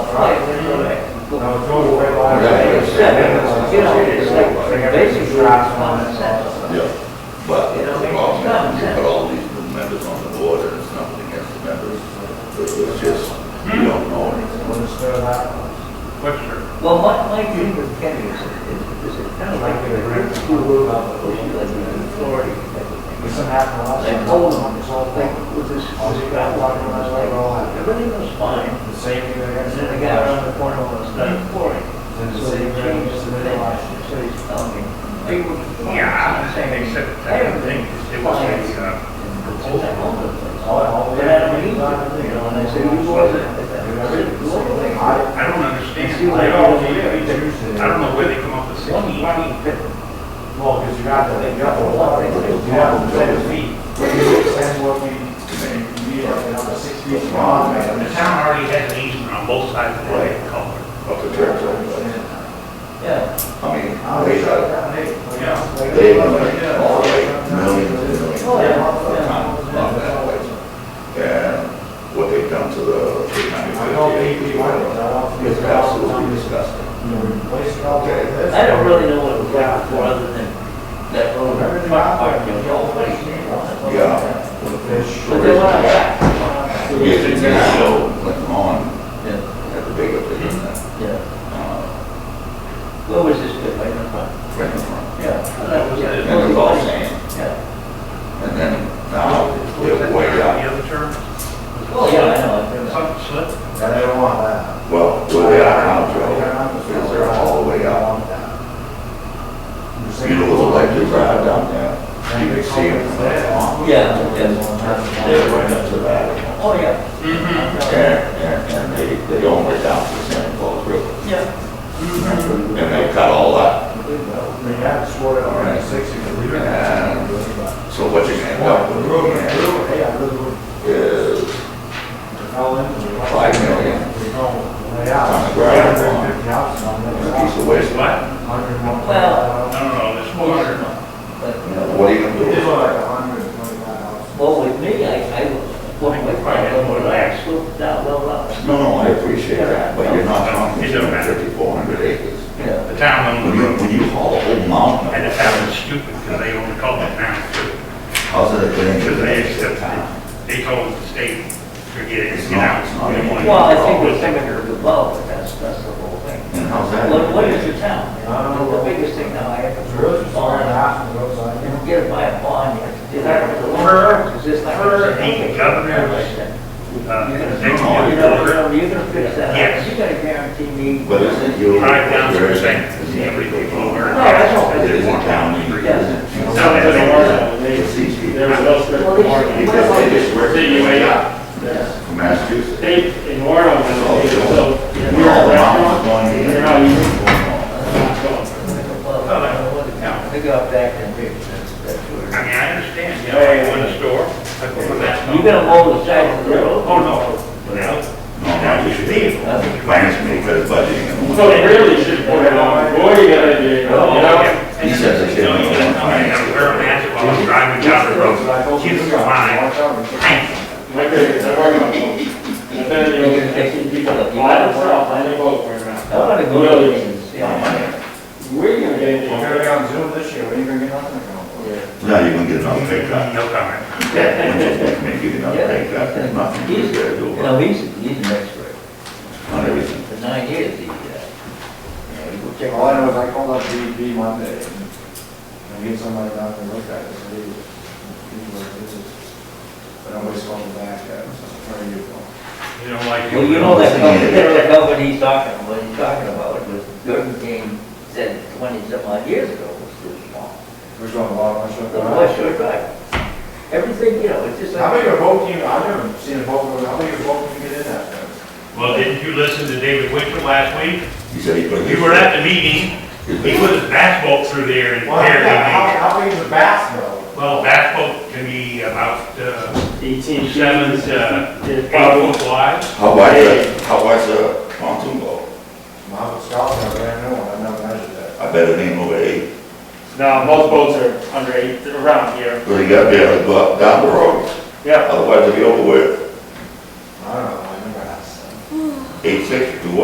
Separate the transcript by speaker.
Speaker 1: No, it's always red line.
Speaker 2: Right.
Speaker 1: It's set, it's, you know, it's like basic rights on it.
Speaker 2: Yeah, but the problem is you put all these new members on the board and it's nothing against the members. But it's just, you don't know anything.
Speaker 1: When it's still out.
Speaker 3: Webster.
Speaker 4: Well, my, my dream with Kenny is, is, is it kind of like the great school rule of pushing like the authority.
Speaker 1: It's an apple, I
Speaker 4: I
Speaker 1: said,
Speaker 4: told
Speaker 1: hold
Speaker 4: him,
Speaker 1: on, it's all thing.
Speaker 4: like, with this,
Speaker 1: All
Speaker 4: this
Speaker 1: you got
Speaker 4: guy
Speaker 1: walking
Speaker 4: walking around,
Speaker 1: around
Speaker 4: I was
Speaker 1: like,
Speaker 4: like,
Speaker 1: all
Speaker 4: "Oh,
Speaker 1: out.
Speaker 4: everything was fine.
Speaker 1: The safety they
Speaker 4: And
Speaker 1: have.
Speaker 4: then the guy around the corner was done for it.
Speaker 1: Then
Speaker 4: So
Speaker 1: the
Speaker 4: they
Speaker 1: same thing,
Speaker 4: changed
Speaker 1: just
Speaker 4: the
Speaker 1: the middle
Speaker 4: thing,
Speaker 1: line.
Speaker 4: so he's telling me. they were fine.
Speaker 3: Yeah,
Speaker 4: Saying,
Speaker 3: except that thing, it was a, uh,
Speaker 4: It's like all the things.
Speaker 1: All, all.
Speaker 4: But Oh, I don't need it, you know, and I said, you was it. I said, you was it.
Speaker 1: I,
Speaker 3: I
Speaker 1: it
Speaker 3: don't understand.
Speaker 1: seems like
Speaker 3: They
Speaker 1: all
Speaker 3: all
Speaker 1: the
Speaker 3: need it.
Speaker 1: features and.
Speaker 3: I don't know where they come up with
Speaker 4: One,
Speaker 3: sixteen
Speaker 4: one,
Speaker 3: feet.
Speaker 4: fifty.
Speaker 1: Well, because you got the, you got the water, you have the
Speaker 3: Seven
Speaker 1: building.
Speaker 3: feet.
Speaker 1: That's what we, we are, you know, six feet long, man.
Speaker 3: The town already has an easement on both sides of the way, culvert.
Speaker 2: Up to church, everybody.
Speaker 4: Yeah.
Speaker 2: I mean, they got,
Speaker 1: Yeah.
Speaker 2: they were like, all like millions and millions
Speaker 4: Oh,
Speaker 2: of
Speaker 4: yeah,
Speaker 2: times on that place. And what they done to the three ninety
Speaker 1: I don't think
Speaker 2: fifty
Speaker 1: we
Speaker 2: eight
Speaker 1: want it, I don't think
Speaker 2: is
Speaker 1: it's
Speaker 2: absolutely disgusting.
Speaker 1: You know, replace it all like this.
Speaker 4: yeah. I don't really know what it was like before, other than that road.
Speaker 1: Everything out there.
Speaker 4: You know, what do you think about it?
Speaker 2: Yeah.
Speaker 1: Fish.
Speaker 4: But then when I got.
Speaker 2: Yeah, they just show Clinton on
Speaker 4: Yeah,
Speaker 2: at the big opening, uh,
Speaker 4: yeah.
Speaker 2: uh,
Speaker 4: Where was this bit, right in front?
Speaker 2: right in front.
Speaker 4: Yeah.
Speaker 3: That was it.
Speaker 2: And it was all sand.
Speaker 4: Yeah.
Speaker 2: And then now
Speaker 1: Oh,
Speaker 2: they're way
Speaker 3: The
Speaker 2: out.
Speaker 3: other term?
Speaker 4: Well, Oh, yeah, I know, I know.
Speaker 3: Some slip.
Speaker 1: And they don't want that.
Speaker 2: Well, where they are now, Joe, is they're all the way out. You know, the electric drive down there, you can see them from the farm.
Speaker 4: Yeah, yeah.
Speaker 2: They're right up to that.
Speaker 4: Oh, yeah.
Speaker 3: Mm-hmm.
Speaker 2: And, and, and they, they own it down to the Santa Claus River.
Speaker 4: Yeah.
Speaker 2: And they cut all that.
Speaker 1: They had to swear it on in sixty, but we didn't have to.
Speaker 2: So what you're gonna end up with looking at
Speaker 1: Hey, I really would.
Speaker 2: is
Speaker 1: All in.
Speaker 2: five million
Speaker 1: We don't lay out.
Speaker 2: On the ground.
Speaker 1: Fifty thousand on
Speaker 2: on
Speaker 1: that.
Speaker 2: uh, a piece of waste land.
Speaker 1: Hundred and one.
Speaker 4: Well-
Speaker 3: I don't know, there's four hundred.
Speaker 4: But, you know,
Speaker 2: What are you gonna do?
Speaker 1: It's
Speaker 2: with
Speaker 1: like
Speaker 2: it?
Speaker 1: a hundred and twenty-five dollars.
Speaker 4: well, with me, I, I was, when we probably were relaxed, looked down, well, uh, up.
Speaker 2: No, no, I appreciate that, but you're not talking
Speaker 3: It don't matter.
Speaker 2: 5,400 acres.
Speaker 4: Yeah.
Speaker 3: The town
Speaker 2: When
Speaker 3: owned the
Speaker 2: you,
Speaker 3: road.
Speaker 2: when you haul a whole mountain,
Speaker 3: And the
Speaker 2: of-
Speaker 3: town is stupid because they own the culvert now too.
Speaker 2: how's it going to
Speaker 3: Because
Speaker 2: benefit the
Speaker 3: they accepted
Speaker 2: town?
Speaker 3: it. They told the state, forget
Speaker 2: It's
Speaker 3: it, get
Speaker 2: not-
Speaker 3: out.
Speaker 2: it's not
Speaker 3: We don't want it."
Speaker 4: Well, I think we're thinking of the above, but that's, that's the whole thing.
Speaker 2: And how's that?
Speaker 4: What, what is your town? The biggest thing now, I have
Speaker 1: It's
Speaker 4: to.
Speaker 1: really just all in the house and goes like,
Speaker 4: You
Speaker 1: you know,
Speaker 4: don't get it by a bond, you have to do that.
Speaker 3: For-
Speaker 4: Is this like?
Speaker 3: for the governor. Uh,
Speaker 4: You're gonna,
Speaker 3: they
Speaker 4: you
Speaker 3: told
Speaker 4: know,
Speaker 3: the
Speaker 4: you
Speaker 3: culvert,
Speaker 4: know, you're gonna fix that up,
Speaker 3: Yes.
Speaker 4: you're gonna guarantee me.
Speaker 2: But isn't you?
Speaker 3: Five thousand percent,
Speaker 2: Isn't it-
Speaker 3: every people over.
Speaker 4: No, that's all.
Speaker 2: It isn't county, it
Speaker 4: Yes.
Speaker 2: isn't.
Speaker 3: No, that's all.
Speaker 2: It's easy.
Speaker 5: There was no script
Speaker 4: Well,
Speaker 5: warning.
Speaker 4: it's- what about-
Speaker 2: They just work
Speaker 5: See, you may not.
Speaker 2: from Massachusetts.
Speaker 5: They, in Warren, they said, so
Speaker 2: Oh,
Speaker 5: if
Speaker 2: We're
Speaker 5: you're
Speaker 2: all mountains
Speaker 5: a restaurant,
Speaker 2: going
Speaker 5: you
Speaker 2: in.
Speaker 5: know, you-
Speaker 2: Well,
Speaker 3: Oh,
Speaker 4: They go back and fix that, that's
Speaker 3: I
Speaker 4: where.
Speaker 3: mean, I understand, you know, I go in the store, I go for that.
Speaker 4: You're gonna mow the side of the road.
Speaker 3: Oh, no, no, now you should leave.
Speaker 2: Plans me for budgeting.
Speaker 5: So they really should put it on, boy, you gotta do, it, you
Speaker 2: Oh,
Speaker 3: Oh,
Speaker 5: know?
Speaker 2: He says they should.
Speaker 3: No, you don't come in and wear a mask while I'm driving down the road, kids are mine, thank you.
Speaker 5: Like, it's a hard one. And then you can take people that lie to self, I think, oh, we're not.
Speaker 4: I wanna go to
Speaker 5: Really?
Speaker 4: the, yeah,
Speaker 5: We're gonna
Speaker 1: We're
Speaker 5: get into.
Speaker 1: gonna be on Zoom this year, we ain't gonna get nothing going.
Speaker 2: Now you're gonna get another pay cut.
Speaker 3: No comment.
Speaker 2: Maybe you get another pay cut, there's nothing
Speaker 4: he's,
Speaker 2: you
Speaker 4: you
Speaker 2: gotta do
Speaker 4: know, he's, he's an expert,
Speaker 2: on everything.
Speaker 4: for nine years, he, uh, you know, he will check
Speaker 1: All I know is I called up DEP Monday and I get somebody down to look at it, so they, people are busy. But I'm always calling back, guys, where are you going?
Speaker 3: You don't like.
Speaker 4: Well, you know that company, that company he's talking, what he's talking about, was Gordon King said twenty-some odd years ago was too small.
Speaker 1: We're going a lot, we're
Speaker 4: The West Shore Drive. Everything, you know, it's just
Speaker 1: How
Speaker 4: like,
Speaker 1: big a boat can you, I've never seen a boat, go- how big a boat can you get in that thing?
Speaker 3: Well, didn't you listen to David Winter last week?
Speaker 2: He said he put. his-
Speaker 3: You were at the meeting,
Speaker 2: his
Speaker 3: he
Speaker 2: big-
Speaker 3: put his basketball through there and
Speaker 1: Well, yeah,
Speaker 3: barely made
Speaker 1: how, how big is a bass though?
Speaker 3: it. Well, basketball can be about, uh,
Speaker 5: Eighteen
Speaker 3: seven
Speaker 5: sevens,
Speaker 3: to
Speaker 5: It's
Speaker 3: eight
Speaker 5: probably,
Speaker 3: foot wide.
Speaker 2: How wide's a, how wide's a pontoon boat?
Speaker 1: Well, it's golf, I don't know, I've never measured that.
Speaker 2: I bet it ain't over eight.
Speaker 5: no, most boats are under eight, around here,
Speaker 2: But you gotta be able to go up down the road,
Speaker 5: yeah.
Speaker 2: otherwise it'll be over with.
Speaker 1: I don't know, I never asked.
Speaker 2: Eight sixty.